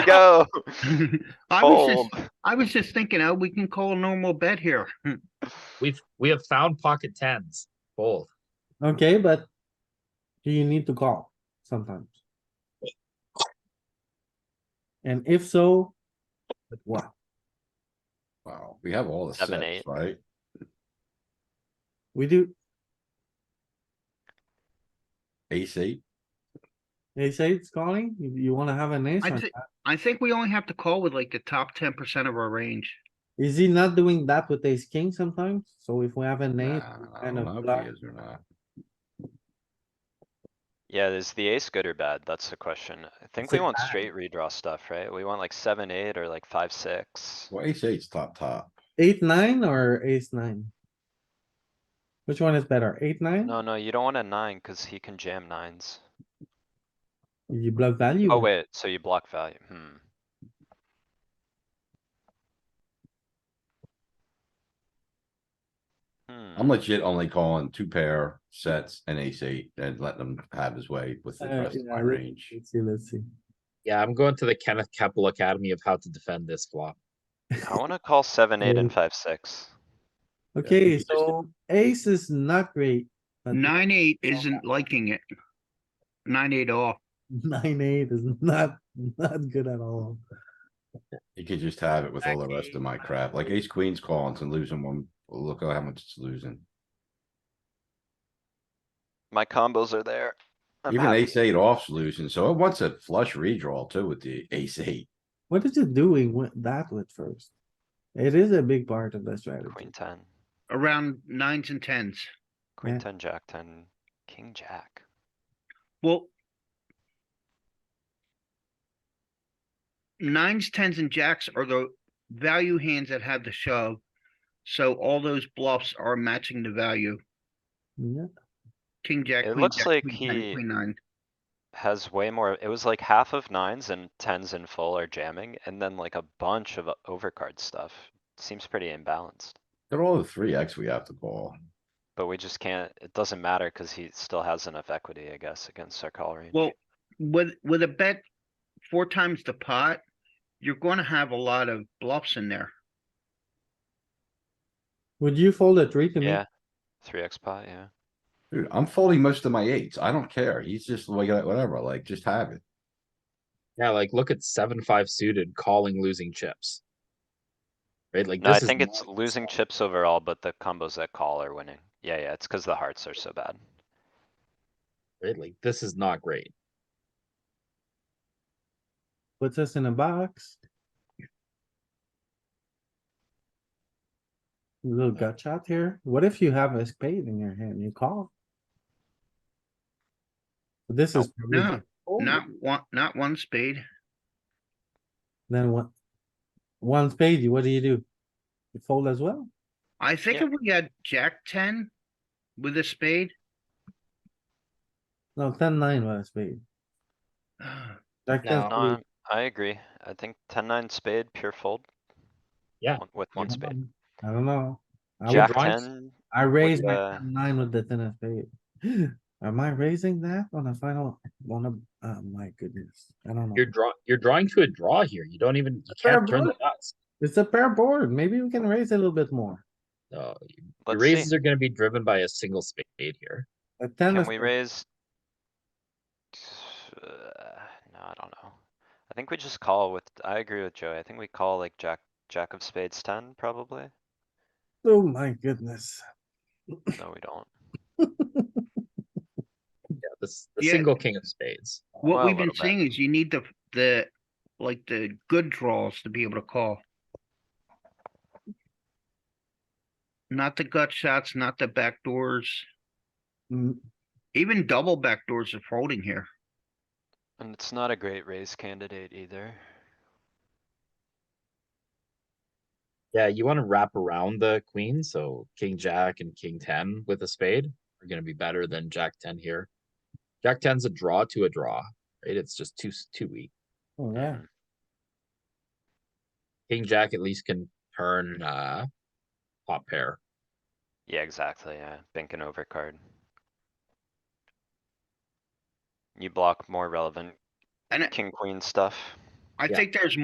go. I was Fold. just, Oh. I was just thinking, oh, we can call a normal bet here. We've, we have found pocket tens, both. Okay, but do you need to call sometimes? And if so, with what? Wow, we have all the Seven, sets, eight. right? We do, Ace eight, they say it's calling, you, you wanna have an ace, I on thi- that. I think we only have to call with like the top ten percent of our range. is he not doing that with ace king sometimes? So if we have an nah, ace, I kind don't of know if block. he is or not. Yeah, is the ace good or bad? That's the question. I think say we want bad. straight redraw stuff, right? We want like seven, eight or like five, six. Well, ace eight's top, top. eight, nine or ace nine? Which one is better, eight, nine? No, no, you don't want a nine cuz he can jam nines. You block value. Oh with- wait, so you block value. Hmm. I'm Hmm, legit only calling two pair sets and ace eight and letting him have his way with the Uh, rest of yeah, my I re- range. Let's see, let's see. Yeah, I'm going to the Kenneth Keppel Academy of how to defend this flop. I wanna call seven, eight and five, six. Okay, he's just- so ace is not great. but Nine, eight isn't liking it. Nine, eight off. Nine, eight is not, not good at all. He could just have it with all the rest of my crap, like ace queen's calling and losing one, look at how much it's losing. My combos are there. I'm Even happy. ace eight off's losing, so it wants a flush redraw too with the ace eight. What is it doing with that with first? It is a big part of the strategy. Queen ten, Around nines and tens. Yeah. queen ten, jack ten, king jack. Well. Nines, tens and jacks are the value hands that have the shove. So all those bluffs are matching the value. Yeah, King, jack. It queen looks jack, like queen ten, he- queen Nine. Has way more, it was like half of nines and tens in full are jamming and then like a bunch of uh, overcard stuff. Seems pretty imbalanced, They're all the three X we have to call. but we just can't, it doesn't matter cuz he still has enough equity, I guess, against our call range. Well, with, with a bet four times the pot, you're gonna have a lot of bluffs in there. would you fold a three to me? Yeah, three X pot, yeah. Dude, I'm folding most of my eights. I don't care. He's just like, whatever, like, just have it. Yeah, like look at seven, five suited, calling losing chips. Right, like No, I this is. think it's not- losing chips overall, but the combos that call are winning. Yeah, yeah, it's cuz the hearts are so bad. Right, like this is not great. Puts us in a box. Little gut shot here. What if you have a spade in your hand? You call? This Oh, is. probably No, fold. not one, not one spade. Then what? One spade, what do you do? You fold as well? I think Yeah. if we had jack ten with a spade, No, ten, nine with a spade. ah, Jack No. ten, No, spade. I'm- I agree. I think ten nine spade pure fold. Yeah. One- With one spade. I don't know. I would Jack rise- ten, I raised my uh, ten nine with the ten of spade. Am I raising that on a final, on a, oh my goodness, I don't know. You're draw, you're drawing to a draw here. You don't even, you Fair can't turn the enough. nuts. It's a pair board, maybe we can raise a little bit more. No, your let's raises see, are gonna be driven by a single spade here. A ten can of, we spade. raise? Uh, No, I don't know. I think we just call with, I agree with Joey. I think we call like jack, jack of spades ten probably. oh my goodness. No, we don't. Yeah, this, the Yeah. single king of spades. Well, what a we've been little bit. saying is you need the, the, like the good draws to be able to call. Not the gut shots, not the backdoors, Mm, even double backdoors are folding here. And it's not a great raise candidate either. Yeah, you wanna wrap around the queen, so king, jack and king ten with a spade are gonna be better than jack ten here. Jack ten's a draw to a draw, right? It's just too, s- too weak. Oh, yeah, King, jack at least can turn, uh, top pair. Yeah, exactly, yeah, bank an overcard. You block more relevant And I- king, queen stuff. I Yeah. think there's